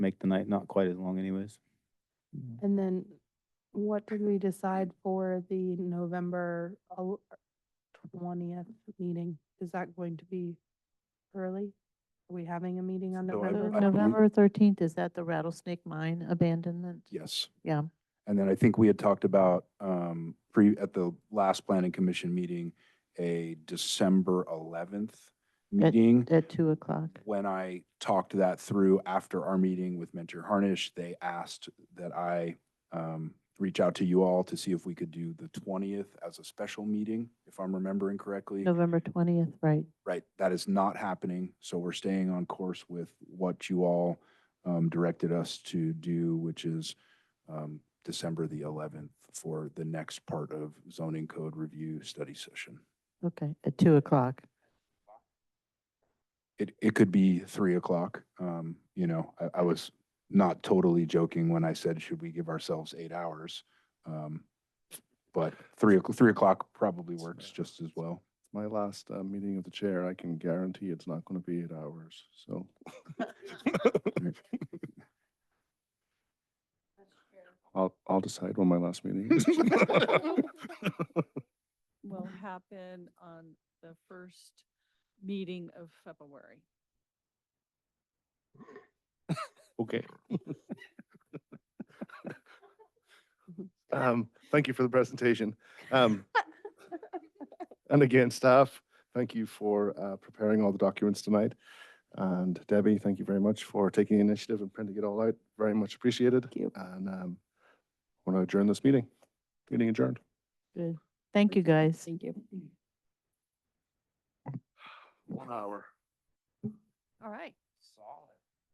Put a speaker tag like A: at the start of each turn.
A: make the night not quite as long anyways.
B: And then what did we decide for the November uh, twentieth meeting? Is that going to be early? Are we having a meeting on
C: So I-
B: November?
C: I believe-
D: November thirteenth, is that the rattlesnake mine abandonment?
C: Yes.
D: Yeah.
C: And then I think we had talked about, um, pre, at the last planning commission meeting, a December eleventh
D: That-
C: meeting.
D: At two o'clock.
C: When I talked that through after our meeting with Mentor Harnish, they asked that I, um, reach out to you all to see if we could do the twentieth as a special meeting, if I'm remembering correctly.
D: November twentieth, right.
C: Right, that is not happening, so we're staying on course with what you all um, directed us to do, which is um, December the eleventh for the next part of zoning code review study session.
D: Okay, at two o'clock.
C: It, it could be three o'clock, um, you know, I, I was not totally joking when I said, should we give ourselves eight hours? Um, But three, o'clock- three o'clock probably works just as well.
E: My last uh, meeting of the chair, I can guarantee it's not going to be eight hours, so. I'll, I'll decide when my last meeting is.
F: will happen on the first meeting of February.
A: Okay.
E: Um, Thank you for the presentation. Um, And again, staff, thank you for uh, preparing all the documents tonight. And Debbie, thank you very much for taking the initiative and printing it all out. Very much appreciated.
D: Thank you.
E: And um, want to adjourn this meeting. Meeting adjourned.
D: Good. Thank you, guys.
F: Thank you.
E: One hour.
F: All right.